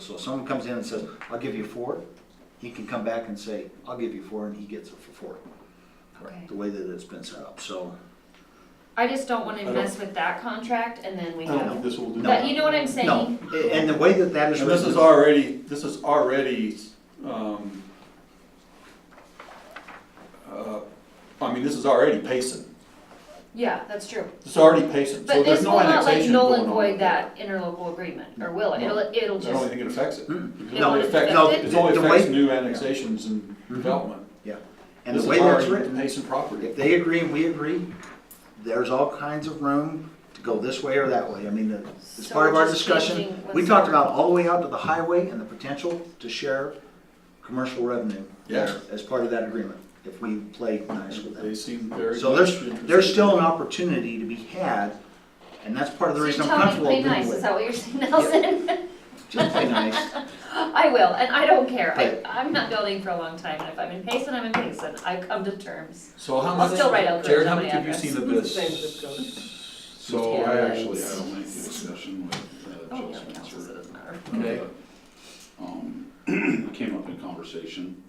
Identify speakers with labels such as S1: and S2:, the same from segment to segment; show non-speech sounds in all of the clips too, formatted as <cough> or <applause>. S1: So if someone comes in and says, I'll give you four, he can come back and say, I'll give you four, and he gets it for four.
S2: Okay.
S1: The way that it's been set up, so.
S2: I just don't want
S3: I
S2: to
S3: don't-
S2: mess with that contract and then we
S3: I don't think
S2: have,
S3: this will do.
S2: but you know what I'm
S1: No,
S2: saying?
S1: a- and the way that that is
S3: And this
S1: written.
S3: is already, this is already, um, uh, I mean, this is already Payson.
S2: Yeah, that's true.
S3: It's already Payson, so
S2: But
S3: there's
S2: this will
S3: no
S2: not like
S3: annexation
S2: null
S3: going
S2: and
S3: on.
S2: void that interlocal agreement, or will it?
S3: No.
S2: It'll, it'll
S3: I don't
S2: just,
S3: think it affects it.
S1: Mm.
S3: Because
S2: It
S3: it only
S2: won't
S1: it.
S2: affect
S3: affects, it only
S1: The- the
S3: affects
S1: way-
S3: new annexations and development.
S1: Yeah, and
S3: This
S1: the
S3: is
S1: way that's
S3: already
S1: written,
S3: Payson property.
S1: if they agree and we agree, there's all kinds of room to go this way or that way. I mean, the- it's
S2: So
S1: part of
S2: we're
S1: our
S2: just
S1: discussion.
S2: changing what's
S1: We talked
S2: there.
S1: about all the way out to the highway and the potential to share commercial revenue
S3: Yeah.
S1: there as part of that agreement, if we play nice with that.
S3: They seem very.
S1: So there's,
S3: much
S1: there's still an
S3: interested.
S1: opportunity to be had, and that's part of the
S2: so you're
S1: reason I'm
S2: telling me
S1: comfortable
S2: play
S1: doing
S2: nice, is
S1: it.
S2: that what you're saying, Nelson? <laughs>
S1: Just play nice.
S2: I will, and I don't care. I,
S1: Right.
S2: I'm not building for a long time, and if I'm in Payson, I'm in Payson. I come to terms.
S3: So how
S2: I'll
S3: much,
S2: still write out the
S3: Jared, how
S2: company
S3: much have you
S2: address.
S3: seen of
S4: It's the same
S3: this?
S4: zip code.
S5: So
S2: Yeah.
S5: I actually had a lengthy discussion with uh,
S2: Oh,
S5: Joe
S2: yeah, it counts, so it
S5: Spencer.
S2: doesn't matter.
S3: Okay.
S5: Uh, um, <clears throat> It came up in conversation,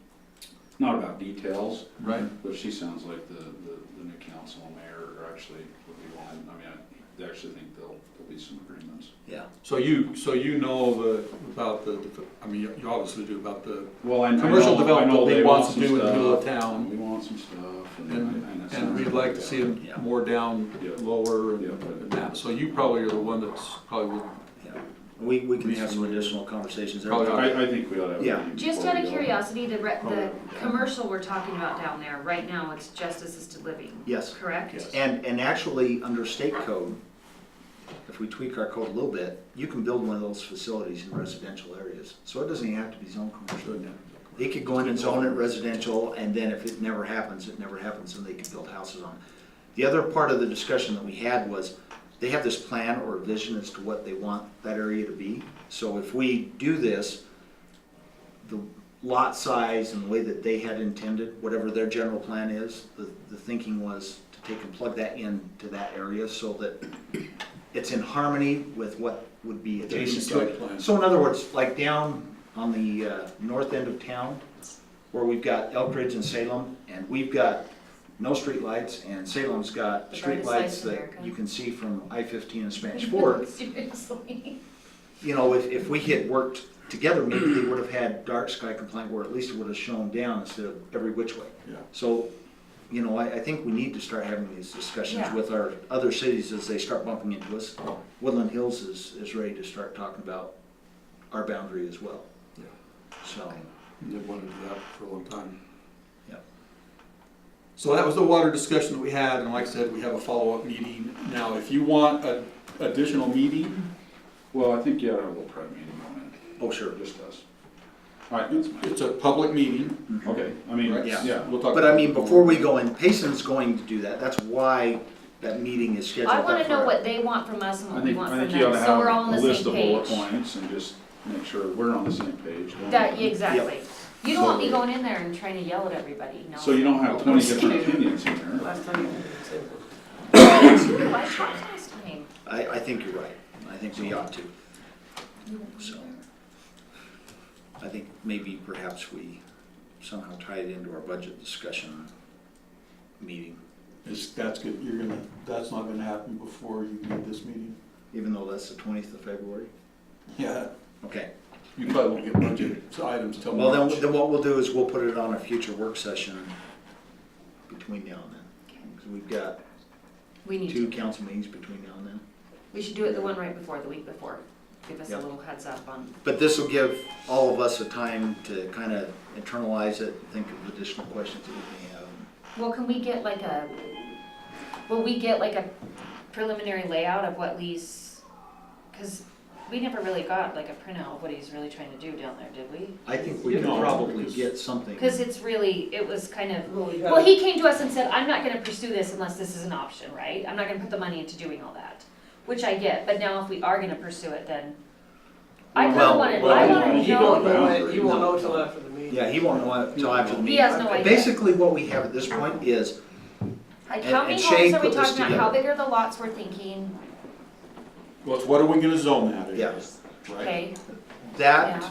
S5: not about details,
S3: <laughs> Right,
S5: but she sounds like the, the the new council and mayor are actually would be wanting, I mean, I- I actually think there'll, there'll be some agreements.
S1: Yeah.
S3: so you, so you know the, about the, I mean, you- you obviously do about the
S5: Well, I know.
S3: Commercial
S5: I know
S3: development,
S5: they
S3: they
S5: want
S3: want to
S5: some
S3: do in the middle of
S5: stuff,
S3: town,
S5: and we want some stuff, and.
S3: and,
S5: I- it
S3: and
S5: sounds
S3: we'd like to see them
S1: Yeah.
S3: more down,
S5: Yeah.
S3: lower,
S5: Yeah.
S3: and and that, so you probably are the one that's probably, would-
S1: Yeah. We, we can
S3: We
S1: have
S3: have
S1: some
S3: some-
S1: additional conversations there.
S3: Probably
S5: I, I think we ought to. have a
S1: Yeah.
S5: meeting
S2: Just
S5: before
S2: out of
S5: we go.
S2: curiosity, the, re-
S3: Oh,
S2: the
S3: yeah.
S2: commercial we're talking about down there, right now, it's just assisted living,
S1: Yes.
S2: correct?
S3: Yes.
S1: And, and actually, under state code, if we tweak our code a little bit, you can build one of those facilities in residential areas. So it doesn't even have to be zoned commercial. They could go in and zone it residential, and then if it never happens, it never happens, and they can build houses on it. The other part of the discussion that we had was, they have this plan or vision as to what they want that area to be. So if we do this, the lot size and the way that they had intended, whatever their general plan is, the, the thinking was to take and plug that in to that area so that it's in harmony with what would be adjacent to
S3: site plan.
S1: it. So in other words, like down on the, uh, north end of town, where we've got Elk Ridge and Salem, and we've got no streetlights, and Salem's got
S2: The brightest lights
S1: streetlights
S2: in
S1: that
S2: America.
S1: you can see from I-15 and Spanish Fork
S2: <laughs> Seriously.
S1: you know, if, if we had worked together, maybe they would have had dark sky compliant, or at least it would have shown down instead of every which way.
S3: Yeah.
S1: So, you know, I, I think we need to start having these discussions
S2: Yeah.
S1: with our other cities as they start bumping into us. Woodland Hills is, is ready to start talking about our boundary as well.
S3: Yeah.
S1: So,
S2: Okay.
S3: They wanted to do that for a long time.
S1: Yep.
S3: So that was the water discussion that we had, and like I said, we have a follow-up meeting. Now, if you want a additional meeting,
S5: Well, I think you ought to have a little prep meeting on
S1: oh, sure.
S5: it, just us. All right, that's
S3: it's a public meeting,
S5: Okay, I mean,
S3: right?
S1: Yeah.
S5: yeah,
S3: We'll talk.
S1: But I mean, before we go in, Payson's going to do that. That's why that meeting is scheduled.
S2: I wanna
S1: that
S2: know
S1: far.
S2: what they want from us and
S5: I
S2: what we
S5: think,
S2: want
S5: I
S2: from
S5: think you ought
S2: them,
S5: to
S2: so
S5: have
S2: we're all on
S5: a
S2: the
S5: list
S2: same
S5: of bullet
S2: page.
S5: points and just make sure we're on the same page.
S2: That, yeah, exactly. You don't want me
S5: So-
S2: going in there and trying to yell at everybody, no.
S5: So you don't have twenty different opinions in there.
S4: Last time you did the same
S2: <coughs>
S4: one.
S2: True, I tried last time.
S1: I, I think you're right. I think we ought to. So, I think maybe perhaps we somehow tie it into our budget discussion meeting,
S3: It's- That's good, you're gonna, that's not gonna happen before you need this meeting.
S1: even though that's the twentieth of February.
S3: Yeah,
S1: Okay,
S3: you probably won't get budget items till
S1: well,
S3: March.
S1: then, then what we'll do is we'll put it on a future work session between now and then.
S2: Okay.
S1: 'Cause we've got
S2: We need
S1: two
S2: to,
S1: council meetings between now and then.
S2: we should do it the one right before, the week before. Give us a
S1: Yeah.
S2: little heads up on,
S1: But this will give all of us a time to kind of internalize it, think of additional questions that we may have.
S2: well, can we get like a, will we get like a preliminary layout of what Lee's, cause we never really got like a printout of what he's really trying to do down there, did we?
S1: I think we could
S3: No,
S1: probably
S3: because-
S1: get something.
S2: Cause it's really, it was kind of,
S4: Well, we
S2: Well,
S4: had,
S2: he came to us and said, I'm not gonna pursue this unless this is an option, right? I'm not gonna put the money into doing all that, which I get, but now if we are gonna pursue it, then I kinda
S1: Well,
S2: wanna, I
S5: well,
S2: wanna
S4: you don't
S2: know.
S4: know it, you won't know till after the meeting.
S1: Yeah, he won't know until after the
S2: He
S1: meeting.
S2: has no idea.
S1: Basically, what we have at this point is, and-
S2: Like, how many
S1: and Shane
S2: homes are we
S1: put this
S2: talking about,
S1: together.
S2: how big are the lots we're thinking,
S3: Well, it's what are we gonna zone that in?
S1: yeah,
S3: Right?
S2: okay?
S1: that